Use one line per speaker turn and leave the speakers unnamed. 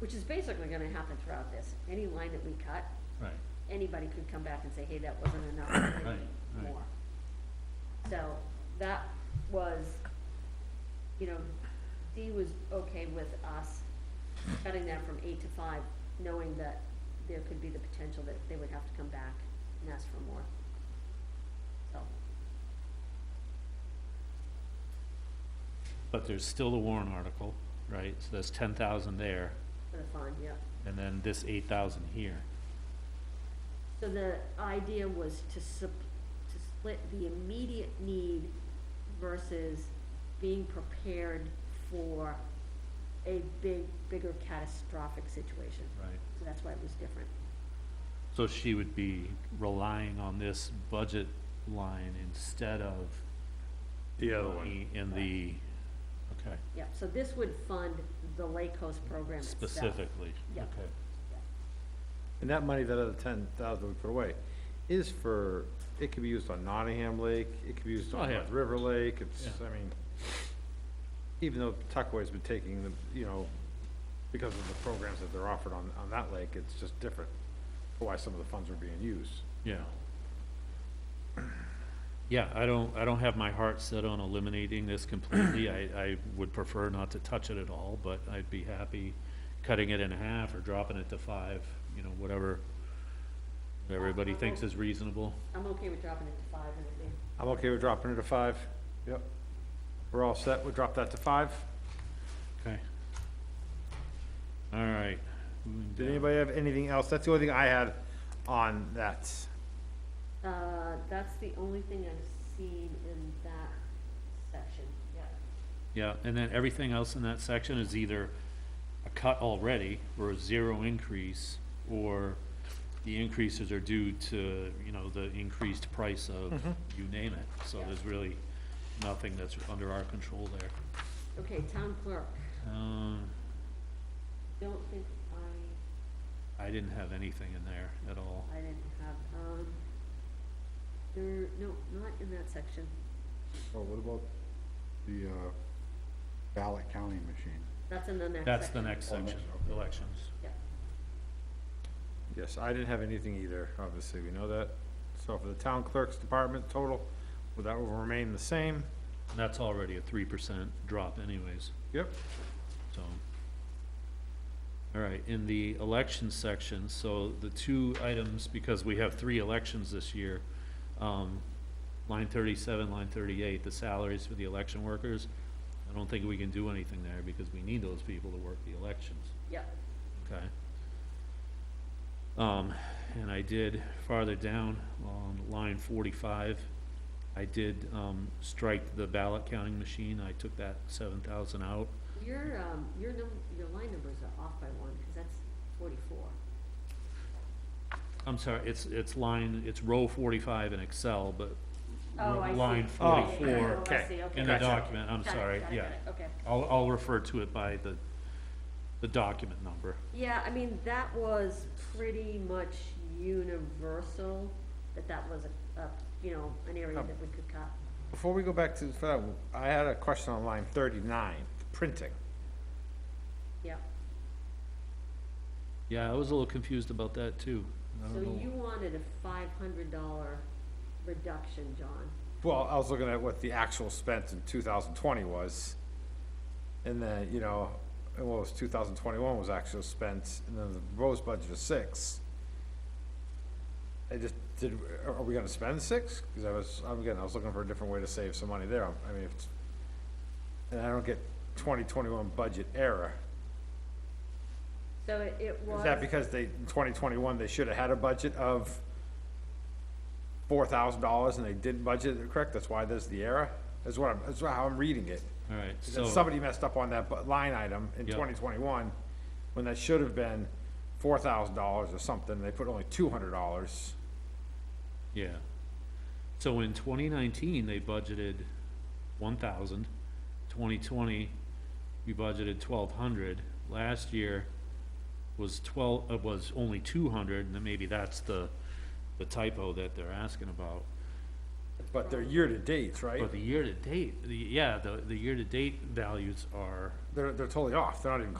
which is basically gonna happen throughout this. Any line that we cut,
right,
anybody could come back and say, hey, that wasn't enough, I
Right,
need
right.
more. So, that was, you know, Dee was okay with us cutting that from eight to five, knowing that there could be the potential that they would have to come back and ask for more. So,
but there's still the Warren article, right, so there's ten thousand there,
for the fund, yeah.
and then this eight thousand here.
So the idea was to sup, to split the immediate need versus being prepared for a big, bigger catastrophic situation.
Right.
So that's why it was different.
So she would be relying on this budget line instead of
The other one,
money in the, okay,
Yep, so this would fund the Lake Coast program itself.
specifically,
Yeah.
okay.
And that money, that other ten thousand we put away, is for, it could be used on Nottingham Lake, it could be used
Oh,
on
yeah.
North River Lake, it's,
Yeah.
I mean, even though Tuckaway's been taking the, you know, because of the programs that they're offered on, on that lake, it's just different for why some of the funds are being used.
Yeah. Yeah, I don't, I don't have my heart set on eliminating this completely. I, I would prefer not to touch it at all, but I'd be happy cutting it in half or dropping it to five, you know, whatever, what everybody thinks is reasonable.
I'm okay with dropping it to five and everything.
I'm okay with dropping it to five. Yep. We're all set, we drop that to five.
Okay. All right. moving
Did
down.
anybody have anything else? That's the only thing I had on that.
Uh, that's the only thing I've seen in that section, yeah.
Yeah, and then everything else in that section is either a cut already, or a zero increase, or the increases are due to, you know, the increased price of,
Mm-hmm.
you name it. So there's really nothing that's under our control there.
Okay, town clerk,
Um,
don't think I
I didn't have anything in there at all.
I didn't have, um, there, no, not in that section.
Well, Oh, what about the uh, ballot counting machine?
That's in the next section.
That's the next
Oh, next,
section,
okay.
elections.
Yeah.
Yes, I didn't have anything either, obviously, we know that. So for the town clerk's department total, well, that will remain the same.
And that's already a three percent drop anyways.
Yep.
So, all right, in the election section, so the two items, because we have three elections this year, um, line thirty-seven, line thirty-eight, the salaries for the election workers, I don't think we can do anything there because we need those people to work the elections,
Yep,
okay? Um, and I did farther down on line forty-five, I did, um, strike the ballot counting machine, I took that seven thousand out.
your, um, your num, your line numbers are off by one, cause that's forty-four.
I'm sorry, it's, it's line, it's row forty-five in Excel, but
Oh, I see. Yeah,
line
yeah, yeah.
forty-four
Oh, I
okay.
see, okay.
in the
Gotcha.
document, I'm
Got it,
sorry,
got it,
yeah.
got it, Okay,
I'll, I'll refer to it by the, the document number.
yeah, I mean, that was pretty much universal, that that was a, a, you know, an area
Oh.
Um,
that we could cut.
Before we go back to, for that, I had a question on line thirty-nine, printing.
Yep,
Yeah, I was a little confused about that too. I
so
don't know.
you wanted a five hundred dollar reduction, John.
Well, I was looking at what the actual spent in two thousand twenty was. And then, you know, and what was two thousand twenty-one was actually spent, and then the proposed budget is six. I just, did, are are we gonna spend six? Cause I was, I'm again, I was looking for a different way to save some money there, I mean, if it's, and I don't get twenty twenty-one budget error.
So it, it was.
Is that because they, in twenty twenty-one, they should have had a budget of four thousand dollars and they didn't budget it correct? That's why there's the error? That's what I'm, that's how I'm reading it.
All right,
Is
so.
that somebody messed up on that bu- line item in
Yep.
twenty twenty-one, when that should have been four thousand dollars or something, they put only two hundred dollars.
Yeah. So in twenty nineteen, they budgeted one thousand. Twenty twenty, we budgeted twelve hundred. Last year was twelve, uh, was only two hundred, and then maybe that's the, the typo that they're asking about.
But they're year-to-dates, right?
But the year-to-date, the, yeah, the, the year-to-date values are
They're, they're totally off. They're not even